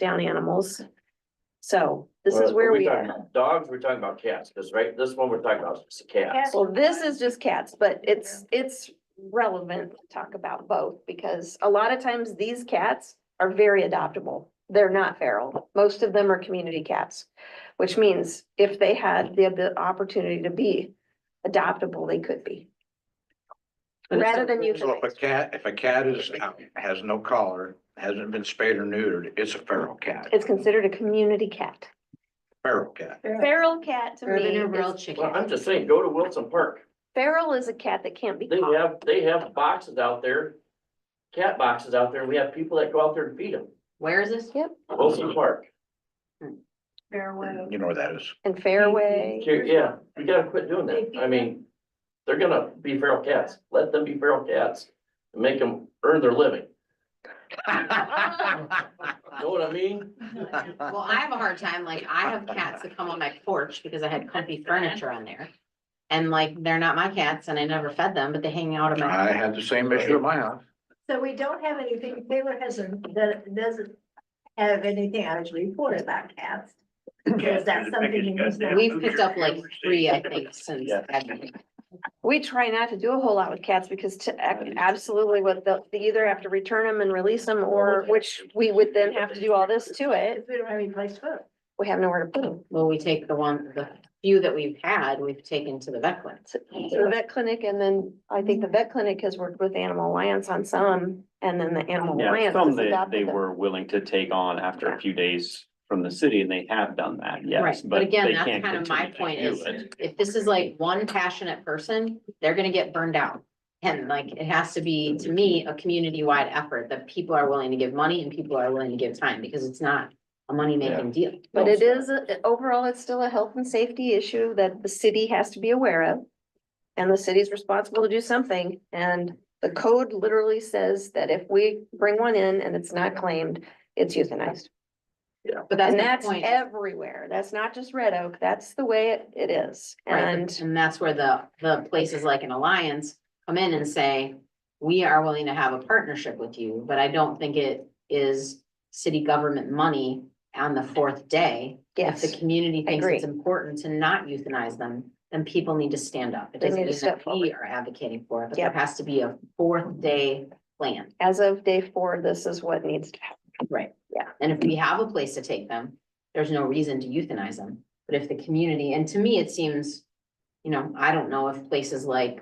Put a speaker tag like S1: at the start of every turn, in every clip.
S1: down animals. So this is
S2: Well,
S1: where
S2: we
S1: we
S2: talking
S1: are.
S2: about Dogs, we're talking about cats, because right, this one we're talking about is cats.
S1: Well, this is just cats, but it's, it's relevant to talk about both because a lot of times these cats are very adoptable. They're not feral. Most of them are community cats, which means if they had the, the opportunity to be adoptable, they could be. Rather than
S3: So if a
S1: euthanized.
S3: cat, if a cat is, out- has no collar, hasn't been spayed or neutered, it's a feral cat.
S1: It's considered a community cat.
S3: Feral cat.
S1: Feral cat to
S4: Or
S1: me,
S4: than a real
S1: is-
S2: Well,
S4: chicken.
S2: I'm just saying, go to Wilson Park.
S1: feral is a cat that can't be
S2: They
S1: caught.
S2: have, they have boxes out there, cat boxes out there, and we have people that go out there and feed them.
S4: Where is this?
S2: Wilson Park.
S3: You know where that is.
S1: And fairway,
S2: Ju- Yeah, we gotta quit doing that. I mean, they're gonna be feral cats. Let them be feral cats. and Make them earn their living. Know what I mean?
S4: Well, I have a hard time, like, I have cats that come on my porch because I had comfy furniture on there. And like, they're not my cats and I never fed them, but they hang out in my,
S3: I had the same issue at my house.
S5: So we don't have anything, Taylor hasn't, that doesn't have anything actually reported about cats. Is that something you need to-
S4: we've picked up like three, I think, since.
S2: Yeah.
S4: I've-
S1: we try not to do a whole lot with cats because to ac- absolutely what they'll, they either have to return them and release them or which we would then have to do all this to it.
S5: If we don't have any place to put them.
S1: We have nowhere to put them.
S4: Well, we take the one, the few that we've had, we've taken to the vet clinic.
S1: To to the vet clinic and then I think the vet clinic has worked with Animal Alliance on some and then the Animal
S6: Yeah,
S1: Alliance.
S6: some
S1: has
S6: they, they
S1: adopted them.
S6: were willing to take on after
S1: Yeah.
S6: a few days from the city and they have done that, yes,
S4: Right,
S6: but
S4: but again,
S6: they
S4: that's
S6: can't
S4: kind of my
S6: continue
S4: point
S6: to
S4: is,
S6: do it.
S4: if this is like one passionate person, they're gonna get burned out. And like, it has to be, to me, a community-wide effort that people are willing to give money and people are willing to give time, because it's not a money-making deal.
S1: But it is, a- overall, it's still a health and safety issue that the city has to be aware of. And the city's responsible to do something. And the code literally says that if we bring one in and it's not claimed, it's euthanized.
S4: But that's
S1: And
S4: my
S1: that's
S4: point.
S1: everywhere. That's not just Red Oak. That's the way it- it is.
S4: Right,
S1: And
S4: and that's where the, the places like an alliance come in and say, we are willing to have a partnership with you, but I don't think it is city government money on the fourth day. If the
S1: yes,
S4: community thinks it's
S1: agree.
S4: important to not euthanize them, then people need to stand up. It
S1: They
S4: doesn't
S1: need to
S4: mean
S1: step
S4: that we
S1: forward.
S4: are advocating for it, but there
S1: Yep.
S4: has to be a fourth day plan.
S1: as of day four, this is what needs to happen.
S4: Right.
S1: Yeah.
S4: And if we have a place to take them, there's no reason to euthanize them. But if the community, and to me, it seems, you know, I don't know if places like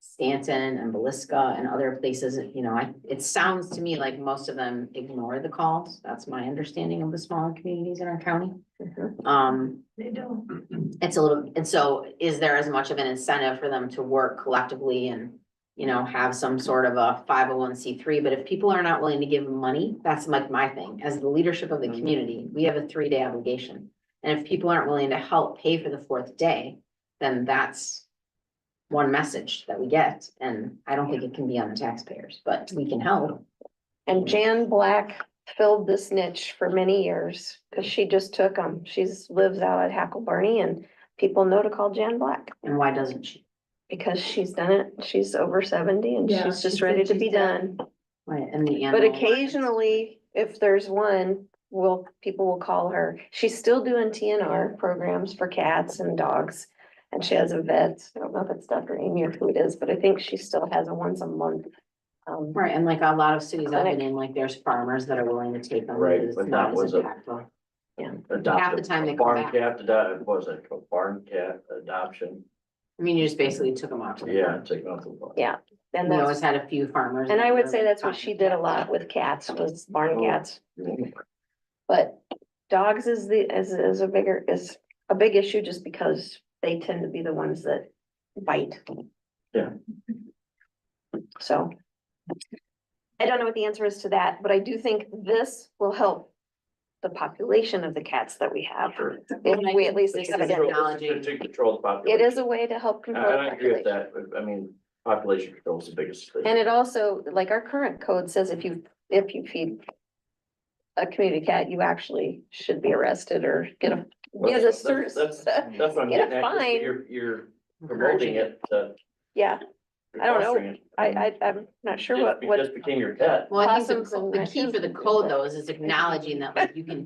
S4: Stanton and Belisca and other places, you know, I, it sounds to me like most of them ignore the calls. That's my understanding of the smaller communities in our county.
S1: Mhm.
S4: Um,
S5: They don't.
S4: it's a little, and so is there as much of an incentive for them to work collectively and, you know, have some sort of a five oh one C three, but if people are not willing to give money, that's like my thing, as the leadership of the
S1: Mm-hmm.
S2: Mhm.
S4: community, we have a three day obligation. And if people aren't willing to help pay for the fourth day, then that's one message that we get, and I don't think it can be on the taxpayers, but we can help.
S1: And Jan Black filled this niche for many years, because she just took them. She's lives out at Hackle Barney and people know to call Jan Black.
S4: And why doesn't she?
S1: Because she's done it, she's over seventy and
S5: Yeah,
S1: she's
S5: she
S1: just
S5: said
S1: ready to be
S5: she's done
S1: done.
S4: Right, and the
S1: But
S4: animal.
S1: occasionally, if there's one, will, people will call her. She's still doing TNR programs for cats and dogs. And she has a vet, I don't know if it's Dr. Amy or who it is, but I think she still has a once a month. Um,
S4: Right, and like a lot of cities I've
S1: Clinic.
S4: been in, like there's farmers that are willing to take them.
S2: Right,
S4: because it's
S2: but
S4: not
S2: that
S4: as
S2: was a-
S4: impactful. Half the
S2: Adopted,
S4: time they
S2: a
S4: come
S2: barn
S4: back.
S2: cat, ado- what was it, a barn cat adoption?
S4: I mean, you just basically took them out. to the
S2: Yeah,
S4: farm.
S2: take them off the farm.
S1: Yeah. and
S4: We
S1: that's.
S4: always had a few farmers.
S1: And
S4: that
S1: I would
S4: were
S1: say that's what she did a lot with cats, was barn cats, but dogs is the, is, is a bigger, is a big issue just because they tend to be the ones that bite.
S2: Yeah.
S1: So. I don't know what the answer is to that, but I do think this will help the population of the cats that we have, if we at least.
S4: This is
S1: accept it.
S4: a-
S2: Control- this is To control the
S1: It
S2: population.
S1: is a way to help
S2: And
S1: control. the
S2: Uh, I agree with
S1: population.
S2: that. I mean, population control is the biggest thing.
S1: And it also, like our current code says, if you, if you feed a community cat, you actually should be arrested or get a,
S2: Well,
S1: get a
S2: that's-
S1: cert.
S2: That's, that's what I'm
S1: get a
S2: getting at, is
S1: fine.
S2: you're, you're promoting
S4: encouraging it.
S2: it to
S1: Yeah, I don't know.
S2: Fostering it.
S1: I, I, I'm not sure
S2: Just
S1: what,
S2: be-
S1: what.
S2: Just became your pet.
S4: Well, I think
S1: Possums
S4: the,
S1: and
S4: the key for the
S1: raccoons and
S4: code
S1: things like-
S4: though is it's acknowledging that like you can